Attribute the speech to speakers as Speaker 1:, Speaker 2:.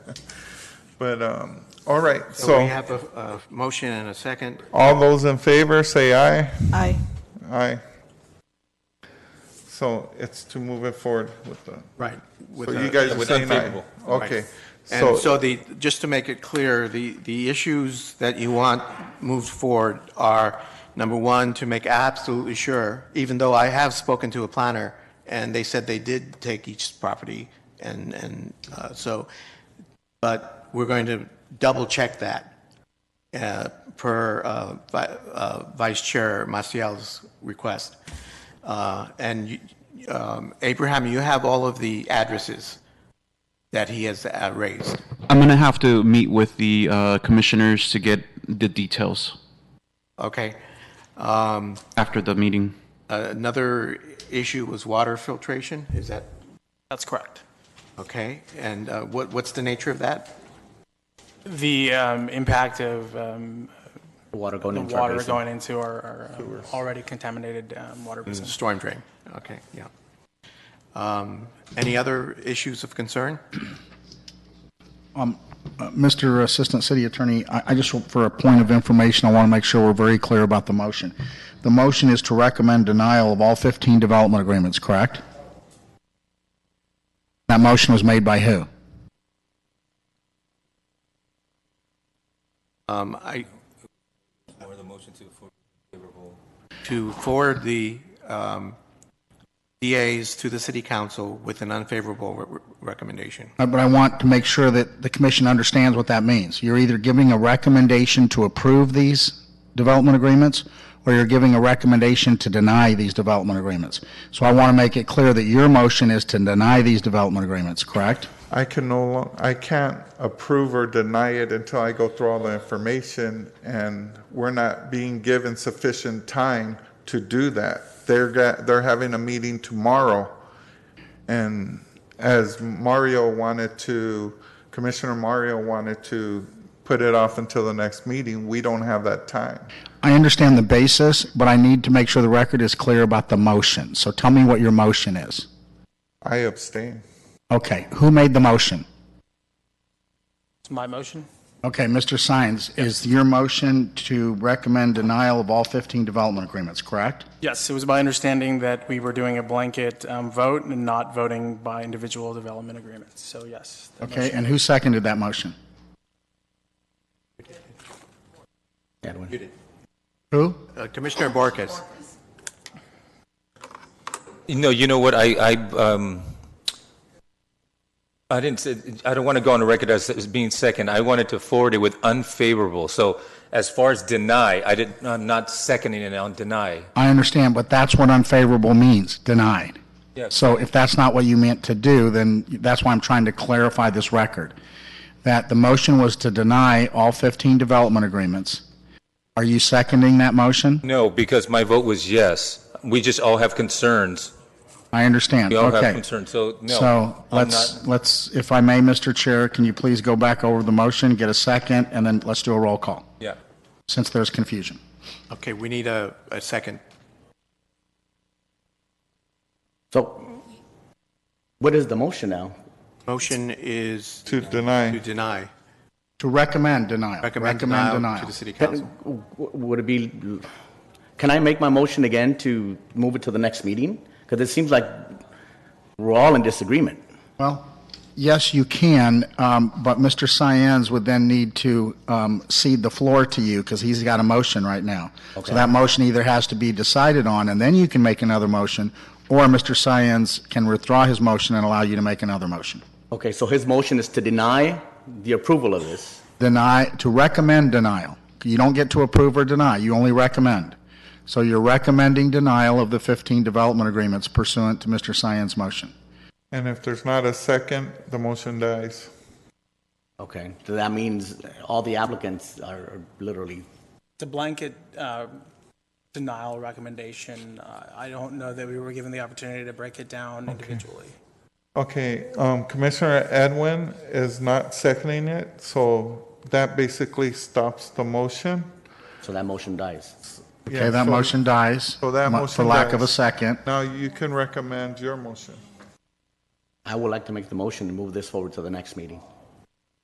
Speaker 1: But, um, all right,
Speaker 2: So we
Speaker 1: so
Speaker 2: have a, a motion and a second.
Speaker 1: all those in favor, say aye.
Speaker 3: Aye.
Speaker 1: Aye. So it's to move it forward with the,
Speaker 2: Right.
Speaker 1: so you guys are
Speaker 4: with
Speaker 1: saying aye.
Speaker 4: unfavorable.
Speaker 1: Okay,
Speaker 2: And
Speaker 1: so,
Speaker 2: so the, just to make it clear, the, the issues that you want moved forward are, number one, to make absolutely sure, even though I have spoken to a planner, and they said they did take each property, and, and uh, so, but we're going to double-check that uh, per uh, Vi- uh, Vice Chair Maciel's request. Uh, And you- um, Abraham, you have all of the addresses that he has uh, raised.
Speaker 5: I'm gonna have to meet with the uh, commissioners to get the details
Speaker 2: Okay. Um,
Speaker 5: after the meeting.
Speaker 2: uh, Another issue was water filtration, is that,
Speaker 6: That's correct.
Speaker 2: okay? And uh, what, what's the nature of that?
Speaker 6: The um, impact of um,
Speaker 4: Water going
Speaker 6: the
Speaker 4: into our
Speaker 6: water
Speaker 4: basin.
Speaker 6: going into our- our um, already contaminated um, water basin.
Speaker 2: Storm drain, okay, yeah. Um, Any other issues of concern?
Speaker 7: Uh, Mr. Assistant City Attorney, I I just, for a point of information, I want to make sure we're very clear about the motion. The motion is to recommend denial of all 15 development agreements, correct? That motion was made by who?
Speaker 2: Um, I. the motion to forward the, um, DAs to the city council with an unfavorable re- re- recommendation.
Speaker 7: Uh, But I want to make sure that the commission understands what that means. You're either giving a recommendation to approve these development agreements, or you're giving a recommendation to deny these development agreements. So I want to make it clear that your motion is to deny these development agreements, correct?
Speaker 1: I can no lo, I can't approve or deny it until I go through all the information, and we're not being given sufficient time to do that. They're, got- they're having a meeting tomorrow, and as Mario wanted to, Commissioner Mario wanted to put it off until the next meeting, we don't have that time.
Speaker 7: I understand the basis, but I need to make sure the record is clear about the motion. So tell me what your motion is.
Speaker 1: I abstain.
Speaker 7: Okay, who made the motion?
Speaker 6: It's my motion?
Speaker 7: Okay, Mr. Sines, is your motion to recommend denial of all 15 development agreements, correct?
Speaker 6: Yes, it was my understanding that we were doing a blanket um, vote and not voting by individual development agreements. So yes. the
Speaker 7: Okay,
Speaker 6: motion-
Speaker 7: and who seconded that motion?
Speaker 2: Edwin.
Speaker 7: Who?
Speaker 2: Uh, Commissioner Borges,
Speaker 4: No, you know what, I, I, um, I didn't, say- I don't want to go on the record as, as being second. I wanted to forward it with unfavorable. So as far as deny, I did, I'm not seconding it on deny.
Speaker 7: I understand, but that's what unfavorable means, denied.
Speaker 4: Yes.
Speaker 7: So if that's not what you meant to do, then that's why I'm trying to clarify this record. That the motion was to deny all 15 development agreements. Are you seconding that motion?
Speaker 4: No, because my vote was yes. We just all have concerns.
Speaker 7: I understand.
Speaker 4: We all have
Speaker 7: Okay.
Speaker 4: concerns, so no.
Speaker 7: So
Speaker 4: I'm
Speaker 7: let's,
Speaker 4: not-
Speaker 7: let's, if I may, Mr. Chair, can you please go back over the motion, get a second, and then let's do a roll call,
Speaker 4: Yeah.
Speaker 7: since there's confusion.
Speaker 2: okay, we need a, a second.
Speaker 4: So.
Speaker 8: What is the motion now?
Speaker 2: Motion is
Speaker 1: To
Speaker 2: to
Speaker 1: deny,
Speaker 2: deny,
Speaker 7: To recommend denial.
Speaker 2: recommend denial to the city council.
Speaker 8: W- Would it be, can I make my motion again to move it to the next meeting? Because it seems like we're all in disagreement.
Speaker 7: Well, yes, you can, um, but Mr. Cyen's would then need to um, cede the floor to you because he's got a motion right now. So that motion either has to be decided on, and then you can make another motion, or Mr. Cyen's can withdraw his motion and allow you to make another motion.
Speaker 8: Okay, so his motion is to deny the approval of this.
Speaker 7: Deny, to recommend denial. You don't get to approve or deny, you only recommend. So you're recommending denial of the 15 development agreements pursuant to Mr. Cyen's motion.
Speaker 1: and if there's not a second, the motion dies.
Speaker 8: Okay, so that means all the applicants are literally,
Speaker 6: It's a blanket uh, denial recommendation. Uh, I don't know that we were given the opportunity to break it down individually.
Speaker 1: Okay, um, Commissioner Edwin is not seconding it, so that basically stops the motion.
Speaker 8: so that motion dies.
Speaker 1: Yeah,
Speaker 7: Okay, that
Speaker 1: so-
Speaker 7: motion dies.
Speaker 1: So that
Speaker 7: mo- For
Speaker 1: motion
Speaker 7: lack of a
Speaker 1: dies.
Speaker 7: second.
Speaker 1: Now you can recommend your motion.
Speaker 8: I would like to make the motion to move this forward to the next meeting.